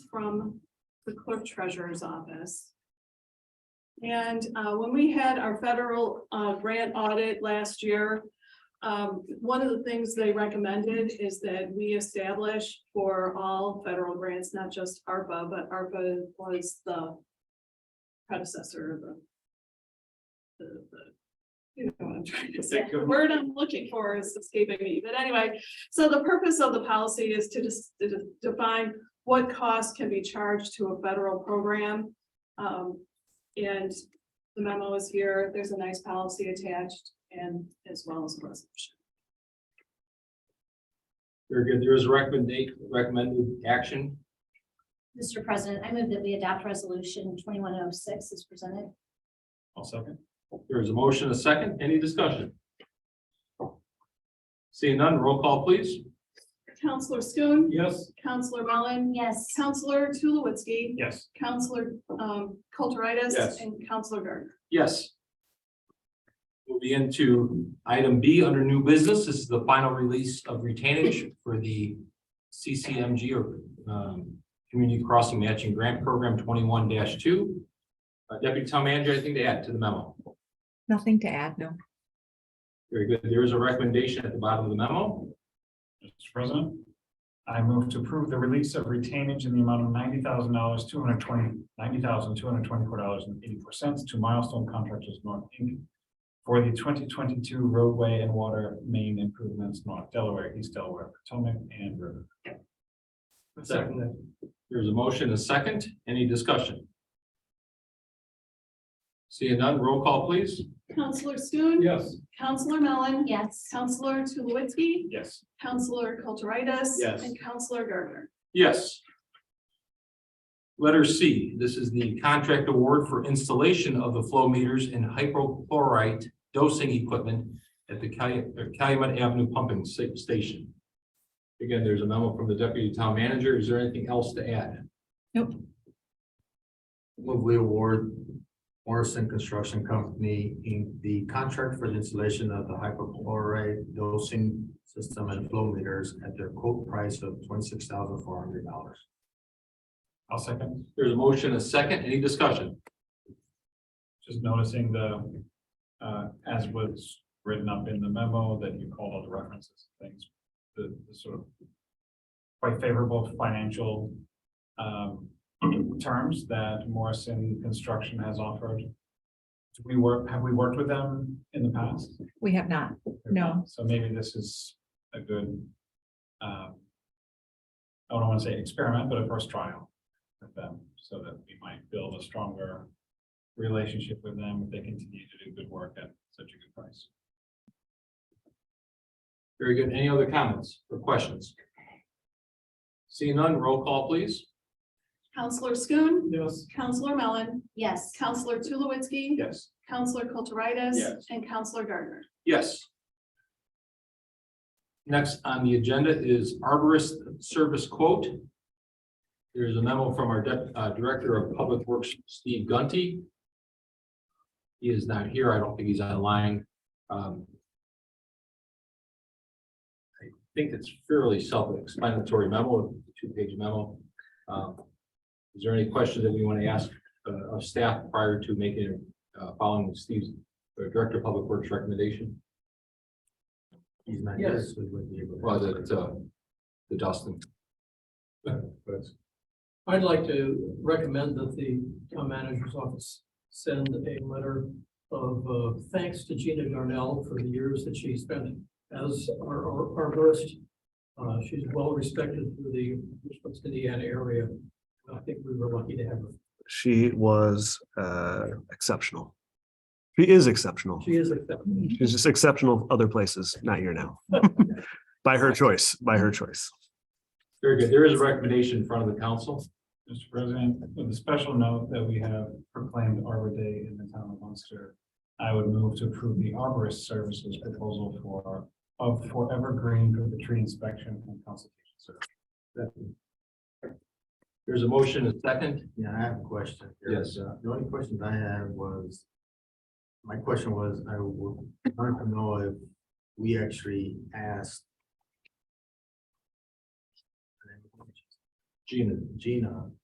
from the clerk treasurer's office. And uh, when we had our federal uh, grant audit last year, um, one of the things they recommended is that we establish for all federal grants, not just ARPA, but ARPA was the predecessor of the the, the, you know what I'm trying to say, the word I'm looking for is escaping me, but anyway, so the purpose of the policy is to just to de- define what costs can be charged to a federal program. Um, and the memo is here, there's a nice policy attached and as well as a resolution. Very good. There is a recommended, recommended action. Mr. President, I move that we adopt resolution twenty-one oh six as presented. I'll second. There is a motion, a second. Any discussion? Seeing none, roll call please. Counselor Schoen, Yes. Counselor Mellon, Yes. Counselor Tulowitzki, Yes. Counselor, um, Kulturitis. Yes. And Counselor Gardner. Yes. Moving into item B under new business, this is the final release of retainage for the CCMG or um, Community Crossing Matching Grant Program twenty-one two. Uh, Deputy Town Manager, anything to add to the memo? Nothing to add, no. Very good. There is a recommendation at the bottom of the memo. Mr. President, I move to approve the release of retainage in the amount of ninety thousand dollars, two hundred twenty, ninety thousand, two hundred twenty-four dollars and eighty-four cents to Milestone Contractors North Inc. For the twenty twenty-two roadway and water main improvements, North Delaware, East Delaware, Potomac, and River. Second. There's a motion, a second. Any discussion? Seeing none, roll call please. Counselor Schoen. Yes. Counselor Mellon. Yes. Counselor Tulowitzki, Yes. Counselor Kulturitis. Yes. And Counselor Gardner. Yes. Letter C, this is the contract award for installation of the flow meters and hypochlorite dosing equipment at the Calu- or Calumet Avenue Pumping Sta- Station. Again, there's a memo from the deputy town manager. Is there anything else to add? Nope. Move we award Morrison Construction Company in the contract for the installation of the hypochlorite dosing system and flow meters at their quote price of twenty-six thousand four hundred dollars. I'll second, There's a motion, a second. Any discussion? just noticing the, uh, as was written up in the memo that you called all the references, and things, the, the sort of quite favorable financial um, terms that Morrison Construction has offered. Do we work, have we worked with them in the past? We have not. No. So maybe this is a good, um, I don't want to say experiment, but a first trial with them, so that we might build a stronger relationship with them if they continue to do good work at such a good price. Very good. Any other comments or questions? Seeing none, roll call please. Counselor Schoen. Yes. Counselor Mellon. Yes. Counselor Tulowitzki. Yes. Counselor Kulturitis. Yes. And Counselor Gardner. Yes. Next on the agenda is arborist service quote. There's a memo from our Dep- uh, Director of Public Works, Steve Gunty. He is not here. I don't think he's online. Um, I think it's fairly self-explanatory memo, two-page memo. Um, Is there any question that we want to ask uh, of staff prior to making, uh, following Steve's or Director of Public Works recommendation He's not here, Yes. so we wouldn't be able to- was it, uh, the Dustin? I'd like to recommend that the town manager's office send a letter of uh, thanks to Gina Darnell for the years that she spent as our our- arborist. Uh, She's well respected through the Richmond, Indiana area. I think we were lucky to have her. she was uh, exceptional. She is exceptional. She is accepted. She's just exceptional other places, not here now. by her choice, by her choice. Very good. There is a recommendation in front of the council. Mr. President, with a special note that we have proclaimed Arbor Day in the town of Munster, I would move to approve the arborist services proposal for, of Forever Green for the tree inspection and consultation service. There's a motion, a second. Yeah, I have a question. here. Yes. Uh, The only question I had was, my question was, I would want to know if we actually asked Gina, Gina